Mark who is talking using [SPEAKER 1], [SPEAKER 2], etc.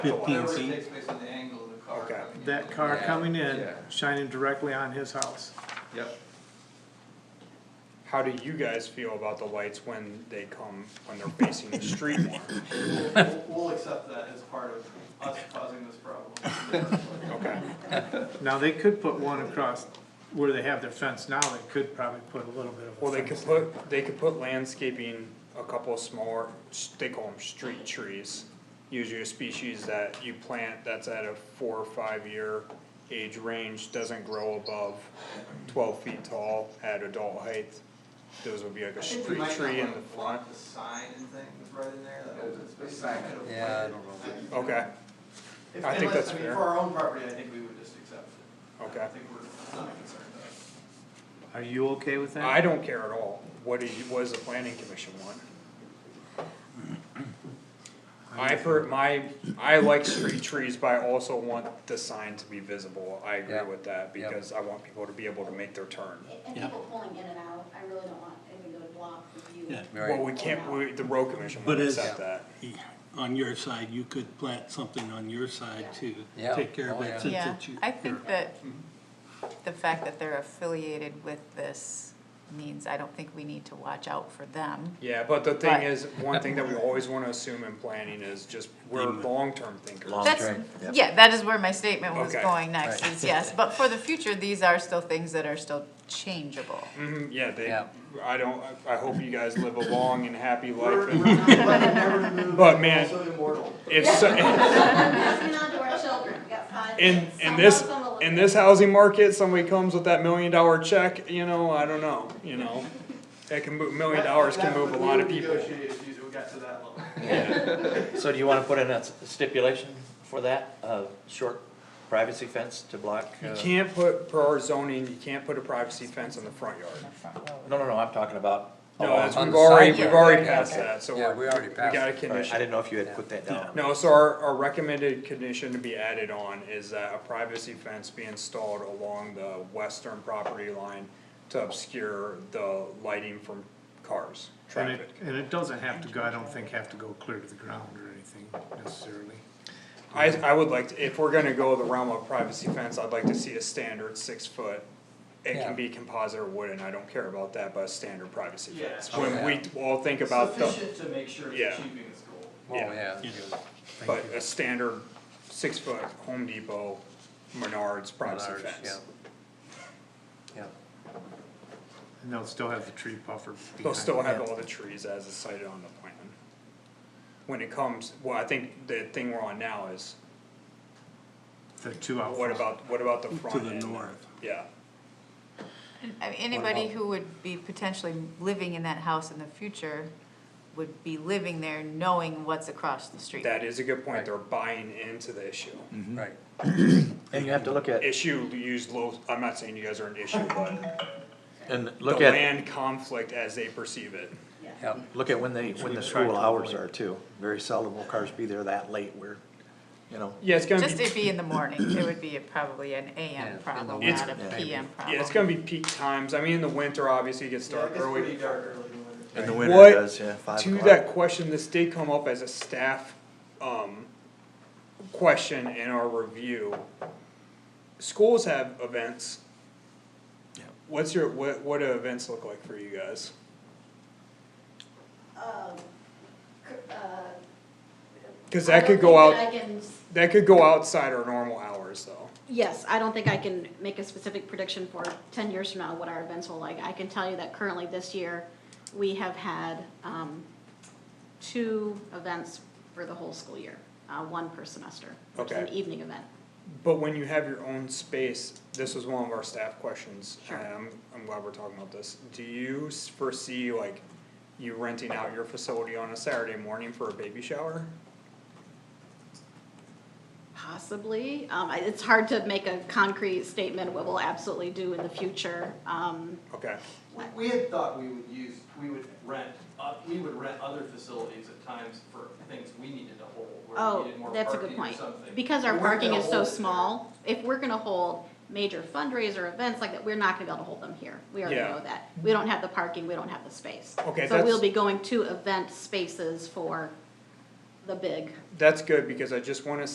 [SPEAKER 1] fifteen
[SPEAKER 2] Whatever it
[SPEAKER 1] feet.
[SPEAKER 2] takes based on the angle of the car.
[SPEAKER 3] Okay.
[SPEAKER 2] coming in.
[SPEAKER 4] That car
[SPEAKER 2] Yeah.
[SPEAKER 4] coming in,
[SPEAKER 2] Yeah.
[SPEAKER 4] shining directly on his house.
[SPEAKER 2] Yep.
[SPEAKER 3] How do you guys feel about the lights when they come, when they're facing the street more?
[SPEAKER 2] We'll- We'll, we'll accept that as part of us causing this problem.
[SPEAKER 3] Okay,
[SPEAKER 4] Now, they could put one across where they have their fence now, they could probably put a little bit of a
[SPEAKER 3] well, they could
[SPEAKER 4] fence.
[SPEAKER 3] put, they could put landscaping, a couple of smaller, s- they call them street trees. Usually a species that you plant that's at a four or five year age range, doesn't grow above twelve feet tall at adult height. Those would be like
[SPEAKER 2] I
[SPEAKER 3] a
[SPEAKER 2] think we
[SPEAKER 3] street
[SPEAKER 2] might
[SPEAKER 3] tree
[SPEAKER 2] not
[SPEAKER 3] in
[SPEAKER 2] wanna
[SPEAKER 3] the front,
[SPEAKER 2] block The sign and thing that's right in there, that open space. I could have
[SPEAKER 5] Yeah, I
[SPEAKER 2] planted-
[SPEAKER 5] don't
[SPEAKER 3] okay,
[SPEAKER 2] If-
[SPEAKER 3] I think
[SPEAKER 2] unless-
[SPEAKER 3] that's
[SPEAKER 2] I mean,
[SPEAKER 3] fair.
[SPEAKER 2] For our own property, I think we would just accept it. I
[SPEAKER 3] okay.
[SPEAKER 2] think we're not concerned about it.
[SPEAKER 4] Are you okay with that?
[SPEAKER 3] I don't care at all, what do you, what does the planning commission want? I per, my, I like street trees, but I also want the sign to be visible, I agree
[SPEAKER 5] Yeah,
[SPEAKER 3] with that,
[SPEAKER 5] yeah.
[SPEAKER 3] because I want people to be able to make their turn.
[SPEAKER 6] And people pulling in and out, I really don't want anybody to block the view.
[SPEAKER 1] Yeah.
[SPEAKER 5] Right.
[SPEAKER 3] Well, we can't, we, the road commission
[SPEAKER 1] But
[SPEAKER 3] won't
[SPEAKER 1] is-
[SPEAKER 3] accept that,
[SPEAKER 1] On your side, you could plant something on your side to
[SPEAKER 5] Yeah.
[SPEAKER 1] take care of
[SPEAKER 5] Oh, yeah.
[SPEAKER 1] it since
[SPEAKER 7] Yeah,
[SPEAKER 1] it's you.
[SPEAKER 7] I think that
[SPEAKER 3] Mm-hmm.
[SPEAKER 7] the fact that they're affiliated with this means I don't think we need to watch out for them.
[SPEAKER 3] yeah, but the thing
[SPEAKER 7] But-
[SPEAKER 3] is, one thing that we always wanna assume in planning is just, we're long-term thinkers.
[SPEAKER 5] Long-
[SPEAKER 7] That's,
[SPEAKER 5] Right, yeah.
[SPEAKER 7] yeah, that is where my statement was
[SPEAKER 3] Okay.
[SPEAKER 7] going next,
[SPEAKER 5] Right.
[SPEAKER 7] is yes, but for the future, these are still things that are still changeable.
[SPEAKER 3] Mhm, yeah, they,
[SPEAKER 5] Yeah.
[SPEAKER 3] I don't, I I hope you guys live a long and happy life,
[SPEAKER 2] We're, we're
[SPEAKER 3] and
[SPEAKER 2] not letting them remove,
[SPEAKER 3] But,
[SPEAKER 2] we're
[SPEAKER 3] man,
[SPEAKER 2] also immortal.
[SPEAKER 3] if, so-
[SPEAKER 6] Passing on to our children, we got five.
[SPEAKER 3] In,
[SPEAKER 6] kids.
[SPEAKER 3] in
[SPEAKER 6] Some
[SPEAKER 3] this,
[SPEAKER 6] of them will-
[SPEAKER 3] in this housing market, somebody comes with that million dollar check, you know, I don't know, you know. That can move, million dollars can
[SPEAKER 2] That's
[SPEAKER 3] move a
[SPEAKER 2] what we
[SPEAKER 3] lot of
[SPEAKER 2] would
[SPEAKER 3] people.
[SPEAKER 2] negotiate if you- we got to that level.
[SPEAKER 8] So do you wanna put in a s- stipulation for that, a short privacy fence to block?
[SPEAKER 3] You
[SPEAKER 8] uh,
[SPEAKER 3] can't put, per our zoning, you can't put a privacy fence in the front yard.
[SPEAKER 8] No, no, no, I'm talking about.
[SPEAKER 3] No,
[SPEAKER 8] along-
[SPEAKER 3] that's,
[SPEAKER 5] Oh, on
[SPEAKER 3] we've
[SPEAKER 5] the
[SPEAKER 3] already,
[SPEAKER 5] side
[SPEAKER 3] we've
[SPEAKER 5] yard.
[SPEAKER 3] already passed that, so
[SPEAKER 5] Yeah,
[SPEAKER 3] we're,
[SPEAKER 5] we already
[SPEAKER 3] we
[SPEAKER 5] passed.
[SPEAKER 3] got a
[SPEAKER 8] All right, I
[SPEAKER 3] condition.
[SPEAKER 8] didn't know if you had put that down.
[SPEAKER 3] No, so our, our recommended condition to be added on is that a privacy fence be installed along the western property line to obscure the lighting from cars,
[SPEAKER 4] And it,
[SPEAKER 3] traffic.
[SPEAKER 4] and it doesn't have to go, I don't think have to go clear to the ground or anything necessarily.
[SPEAKER 3] I, I would like, to if we're gonna go the realm of privacy fence, I'd like to see a standard six foot. It
[SPEAKER 5] Yeah.
[SPEAKER 3] can be composite or wooden, I don't care about that, but a standard privacy
[SPEAKER 2] Yeah.
[SPEAKER 3] fence, when we all think about the,
[SPEAKER 2] Sufficient to make sure
[SPEAKER 3] Yeah.
[SPEAKER 2] it's achieving its goal.
[SPEAKER 5] Oh, yeah.
[SPEAKER 3] but a standard six foot Home Depot, Menards privacy
[SPEAKER 5] Menards,
[SPEAKER 3] fence.
[SPEAKER 5] Yeah.
[SPEAKER 4] And they'll still have the tree puffer
[SPEAKER 3] They'll
[SPEAKER 4] behind.
[SPEAKER 3] still have all the trees as is cited on the plan. When it comes, well, I think the thing we're on now is,
[SPEAKER 4] The two out
[SPEAKER 3] what
[SPEAKER 4] front.
[SPEAKER 3] about, what about the front
[SPEAKER 1] To
[SPEAKER 3] end?
[SPEAKER 1] the north.
[SPEAKER 3] Yeah,
[SPEAKER 7] I mean, Anybody who would be potentially living in that house in the future would be living there knowing what's across the street.
[SPEAKER 3] that is a good point, they're buying into the issue.
[SPEAKER 5] Right.
[SPEAKER 8] And you have to look at,
[SPEAKER 3] issue use low, I'm not saying you guys are an issue, but
[SPEAKER 8] and
[SPEAKER 3] the
[SPEAKER 8] look at,
[SPEAKER 3] land conflict as they perceive it.
[SPEAKER 5] Yeah.
[SPEAKER 8] look at when they, when the school hours are too. Very seldom will cars be there that late where, you know,
[SPEAKER 3] Yeah, it's gonna
[SPEAKER 7] Just
[SPEAKER 3] be,
[SPEAKER 7] it'd be in the morning, it would be a- probably an AM
[SPEAKER 5] Yeah.
[SPEAKER 7] problem,
[SPEAKER 5] It's-
[SPEAKER 7] not a
[SPEAKER 8] yeah.
[SPEAKER 7] PM problem.
[SPEAKER 3] yeah, it's gonna be peak times, I mean, in the winter, obviously, it gets
[SPEAKER 2] Yeah,
[SPEAKER 3] dark
[SPEAKER 2] it gets pretty
[SPEAKER 3] early.
[SPEAKER 2] dark early in the winter.
[SPEAKER 8] in the
[SPEAKER 3] What-
[SPEAKER 8] winter it does, yeah, five
[SPEAKER 3] To
[SPEAKER 8] o'clock.
[SPEAKER 3] that question, this did come up as a staff, um, question in our review. Schools have events.
[SPEAKER 8] Yeah.
[SPEAKER 3] What's your, what, what do events look like for you guys?
[SPEAKER 6] Um, cr- uh,
[SPEAKER 3] Cause
[SPEAKER 6] I
[SPEAKER 3] that
[SPEAKER 6] don't
[SPEAKER 3] could go
[SPEAKER 6] think
[SPEAKER 3] out,
[SPEAKER 6] that I can s-
[SPEAKER 3] that could go outside our normal hours, though.
[SPEAKER 9] Yes, I don't think I can make a specific prediction for ten years from now what our events will like. I can tell you that currently this year, we have had, um, two events for the whole school year, uh, one per semester, which is an
[SPEAKER 3] Okay.
[SPEAKER 9] evening event.
[SPEAKER 3] But when you have your own space, this was one of our staff questions,
[SPEAKER 9] Sure.
[SPEAKER 3] and I'm, I'm glad we're talking about this. Do you s- foresee like you renting out your facility on a Saturday morning for a baby shower?
[SPEAKER 9] Possibly, um, I- it's hard to make a concrete statement what we'll absolutely do in the future, um,
[SPEAKER 3] Okay,
[SPEAKER 2] We, we had thought we would use, we would rent, uh, we would rent other facilities at times for things we needed to hold, where
[SPEAKER 9] Oh,
[SPEAKER 2] we needed more
[SPEAKER 9] that's a
[SPEAKER 2] parking or
[SPEAKER 9] good
[SPEAKER 2] something.
[SPEAKER 9] point, because our
[SPEAKER 2] We weren't
[SPEAKER 9] parking
[SPEAKER 2] gonna
[SPEAKER 9] is so
[SPEAKER 2] hold it
[SPEAKER 9] small, if we're gonna hold major fundraiser events like that, we're not gonna be able to hold them here, we already
[SPEAKER 3] Yeah.
[SPEAKER 9] know that. We don't have the parking, we don't have the space.
[SPEAKER 3] Okay,
[SPEAKER 9] So
[SPEAKER 3] that's-
[SPEAKER 9] we'll be going to event spaces for the big
[SPEAKER 3] that's good, because I just wanna